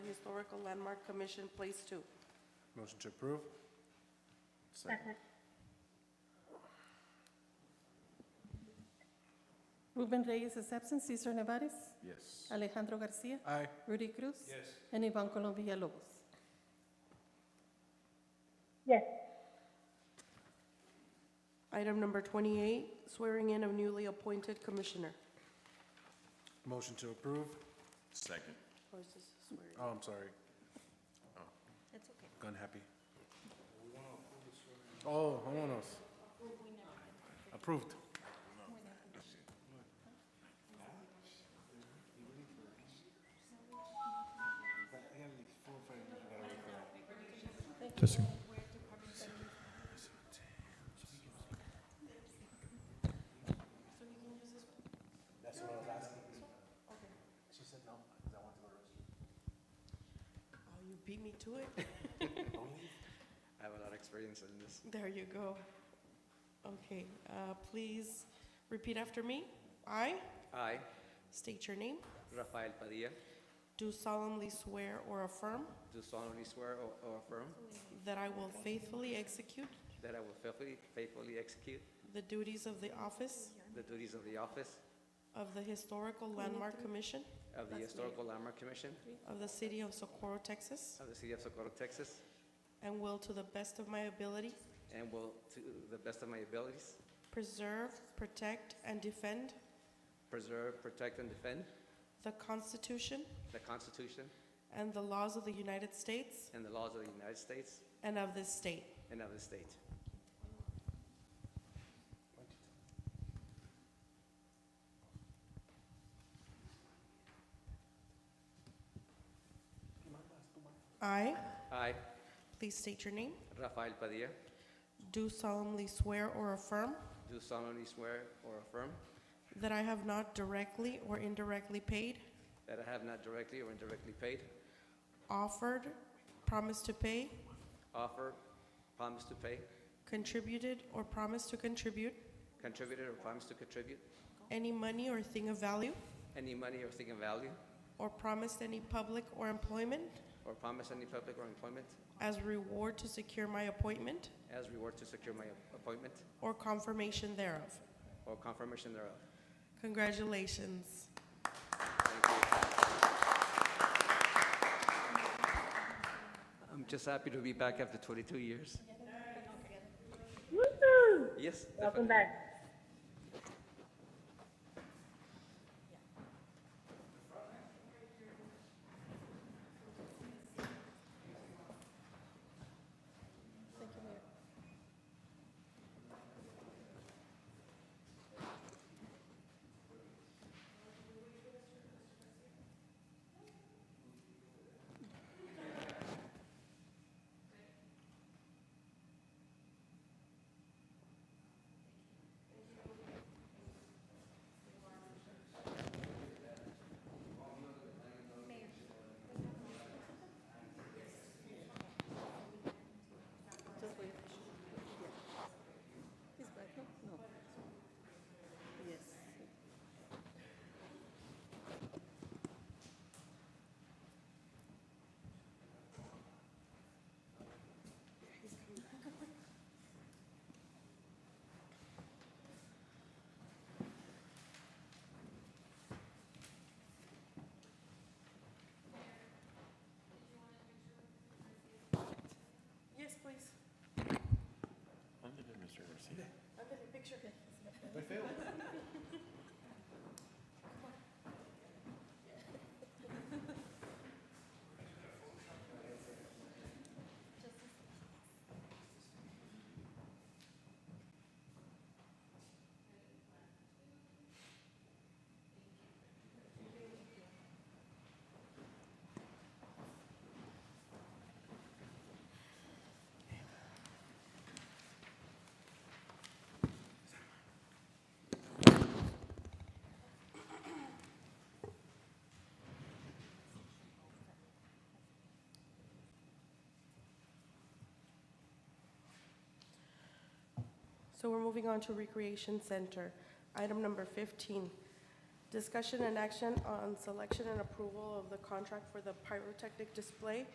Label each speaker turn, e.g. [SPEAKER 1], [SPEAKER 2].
[SPEAKER 1] Historical Landmark Commission, Place Two.
[SPEAKER 2] Motion to approve? Second.
[SPEAKER 3] Ruben Reyes is absent. Cesar Nevares.
[SPEAKER 2] Yes.
[SPEAKER 3] Alejandro Garcia.
[SPEAKER 2] Aye.
[SPEAKER 3] Rudy Cruz.
[SPEAKER 2] Yes.
[SPEAKER 3] And Ivan Colombia Lobos.
[SPEAKER 4] yes,
[SPEAKER 1] Item number 28, swearing in of newly appointed commissioner.
[SPEAKER 2] Motion to approve?
[SPEAKER 5] Second.
[SPEAKER 1] Or is this a swearing?
[SPEAKER 2] Oh, I'm sorry.
[SPEAKER 6] That's okay.
[SPEAKER 2] Gun happy. Oh, vámonos. Approved.
[SPEAKER 7] Testing.
[SPEAKER 1] Oh, you beat me to it?
[SPEAKER 8] I have a lot of experience in this.
[SPEAKER 1] There you go. Okay, uh, please repeat after me. I
[SPEAKER 8] I,
[SPEAKER 1] state your name.
[SPEAKER 8] Rafael Padilla,
[SPEAKER 1] Do solemnly swear or affirm
[SPEAKER 8] do solemnly swear or or affirm
[SPEAKER 1] that I will faithfully execute
[SPEAKER 8] that I will faithfully, faithfully execute
[SPEAKER 1] the duties of the office
[SPEAKER 8] the duties of the office
[SPEAKER 1] of the Historical Landmark Commission
[SPEAKER 8] of the Historical Landmark Commission
[SPEAKER 1] of the City of Socorro, Texas,
[SPEAKER 8] of the City of Socorro, Texas,
[SPEAKER 1] and will, to the best of my ability,
[SPEAKER 8] and will, to the best of my abilities,
[SPEAKER 1] preserve, protect, and defend
[SPEAKER 8] preserve, protect, and defend
[SPEAKER 1] the Constitution
[SPEAKER 8] the Constitution
[SPEAKER 1] and the laws of the United States
[SPEAKER 8] and the laws of the United States
[SPEAKER 1] and of this state.
[SPEAKER 8] and of the state.
[SPEAKER 1] I,
[SPEAKER 8] I,
[SPEAKER 1] please state your name,
[SPEAKER 8] Rafael Padilla,
[SPEAKER 1] do solemnly swear or affirm
[SPEAKER 8] do solemnly swear or affirm
[SPEAKER 1] that I have not directly or indirectly paid,
[SPEAKER 8] that I have not directly or indirectly paid,
[SPEAKER 1] offered, promised to pay,
[SPEAKER 8] offered, promised to pay,
[SPEAKER 1] contributed, or promised to contribute
[SPEAKER 8] contributed or promised to contribute
[SPEAKER 1] any money or thing of value,
[SPEAKER 8] any money or thing of value,
[SPEAKER 1] or promised any public or employment
[SPEAKER 8] or promise any public or employment
[SPEAKER 1] as reward to secure my appointment
[SPEAKER 8] as reward to secure my appointment
[SPEAKER 1] or confirmation thereof.
[SPEAKER 8] or confirmation thereof.
[SPEAKER 1] Congratulations.
[SPEAKER 8] I'm just happy to be back after 22 years.
[SPEAKER 4] woo
[SPEAKER 8] Yes,
[SPEAKER 4] welcome
[SPEAKER 8] definitely.
[SPEAKER 4] back.
[SPEAKER 6] Just wait. He's back, no? No. Yes.
[SPEAKER 1] Yes, please. I'm going to picture. So we're moving on to Recreation Center. Item number 15, Discussion and action on selection and approval of the contract for the pyrotechnic display